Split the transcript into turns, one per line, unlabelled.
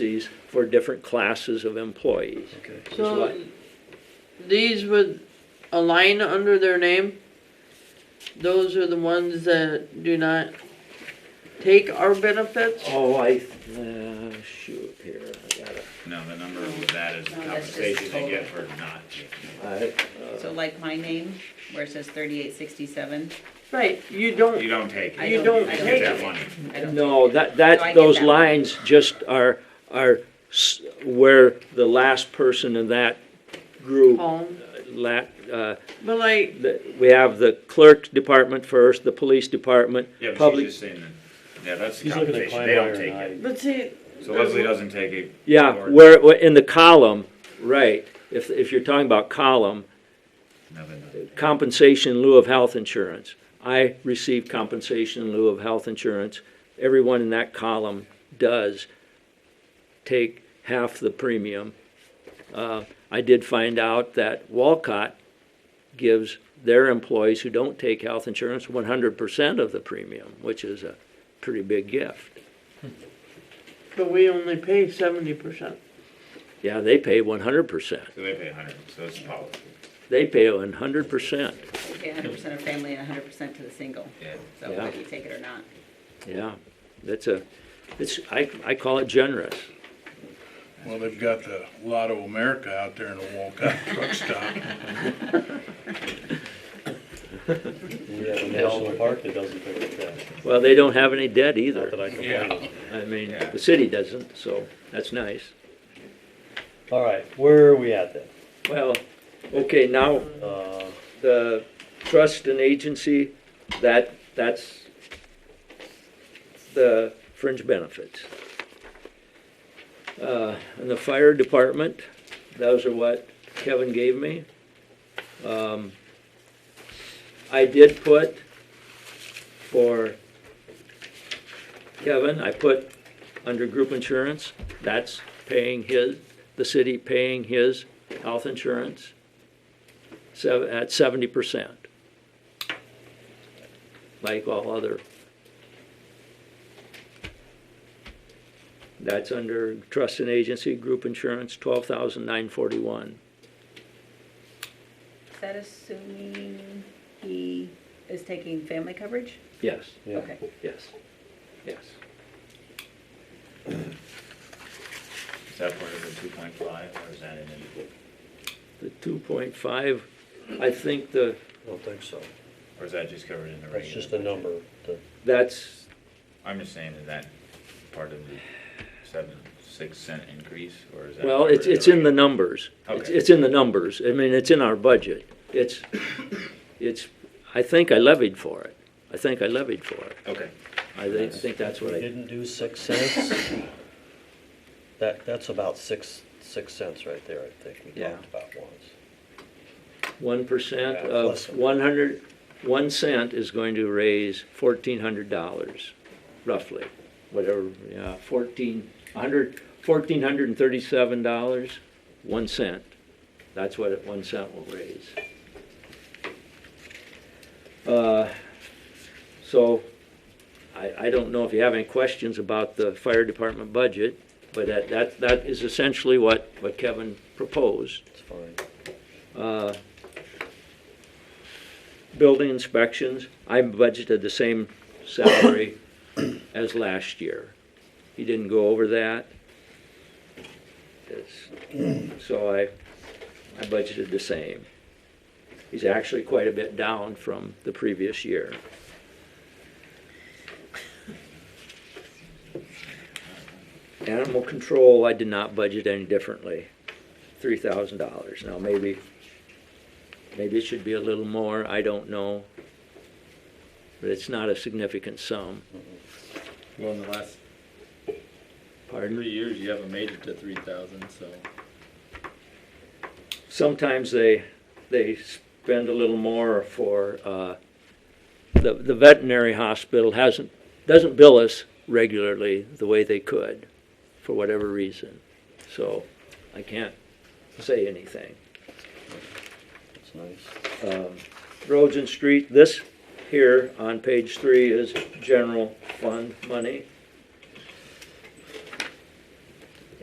policies for different classes of employees.
Okay.
Is
So
what-
these would align under their name. Those are the ones that do not take our benefits.
Oh, I, uh, shoot here, I gotta,
No, the number with that is the
No, that's just
compensation they
total.
get for not.
I,
So like my name, where it says thirty-eight sixty-seven,
Right, you don't,
You don't take
I
it.
You
don't,
don't
I
You
don't
get
take
that
it.
money.
I don't.
No, that,
No, I
that,
get
those
that.
lines just are, are s- where the last person in that group,
Paul,
Oh.
la, uh,
but like,
the- we have the clerk's department first, the police department,
Yeah, but she's
public,
just saying that, yeah, that's the
He's looking at
compensation, they don't take
Kleinmeyer
it.
and
but see,
So Leslie doesn't take it.
yeah,
or
where, where- in the column, right, if, if you're talking about column,
nothing.
compensation in lieu of health insurance. I receive compensation in lieu of health insurance. Everyone in that column does take half the premium. Uh, I did find out that Walcott gives their employees who don't take health insurance one hundred percent of the premium, which is a pretty big gift.
but we only pay seventy percent.
Yeah, they pay one hundred percent.
So they pay a hundred, so it's policy.
They pay one hundred percent,
You pay hundred percent of family and hundred percent to the single,
Yeah.
so
Yeah.
whether you take it or not.
yeah. That's a, it's, I, I call it generous.
Well, they've got the Lotto America out there in the Walcott truck stop.
We have a national park that doesn't pick up trash.
Well, they don't have any debt
Not that
either.
I complain. of.
I mean,
Yeah.
the city doesn't, so that's nice.
All right, where are we at then?
Well, okay, now
Uh,
the trust and agency, that, that's the fringe benefits. Uh, and the fire department, those are what Kevin gave me. Um, I did put for Kevin, I put under group insurance, that's paying his, the city paying his health insurance sev- at seventy percent. Like all other. That's under trust and agency, group insurance, twelve thousand nine forty-one.
Is that assuming he is taking family coverage?
Yes,
yeah,
Okay.
yes, yes.
Is that part of the two point five or is that in it?
The two point five, I think the,
I don't think so.
Or is that just covered in the regular?
That's just a number. that-
that's,
I'm just saying, is that part of the seven, six cent increase or is that?
well, it's,
covered
it's in the
regular?
numbers. It's,
Okay.
it's in the numbers. I mean, it's in our budget. It's, it's, I think I levied for it. I think I levied for it.
Okay.
I think, I think that's what
We
I
didn't do six cents. That, that's about six, six cents right there, I think. We
Yeah.
talked about once.
one percent
Yeah,
of
plus them.
one hundred, one cent is going to raise fourteen hundred dollars, roughly. Whatever, yeah, fourteen, a hundred, fourteen hundred and thirty-seven dollars, one cent. That's what it- one cent will raise. Uh, So, I, I don't know if you have any questions about the fire department budget, but that, that, that is essentially what, what Kevin proposed.
It's fine.
Uh, Building inspections, I budgeted the same salary as last year. He didn't go over that. It's- So I, I budgeted the same. He's actually quite a bit down from the previous year. Animal control, I did not budget any differently three thousand dollars. Now, maybe, maybe it should be a little more, I don't know. But it's not a significant sum,
Well, in the last
pardon.
three years, you haven't made it to three thousand, so.
Sometimes they, they spend a little more for, uh, the, the veterinary hospital hasn't, doesn't bill us regularly the way they could, for whatever reason. So, I can't say anything.
It's nice.
um, roads and street, this here on page three is general fund money.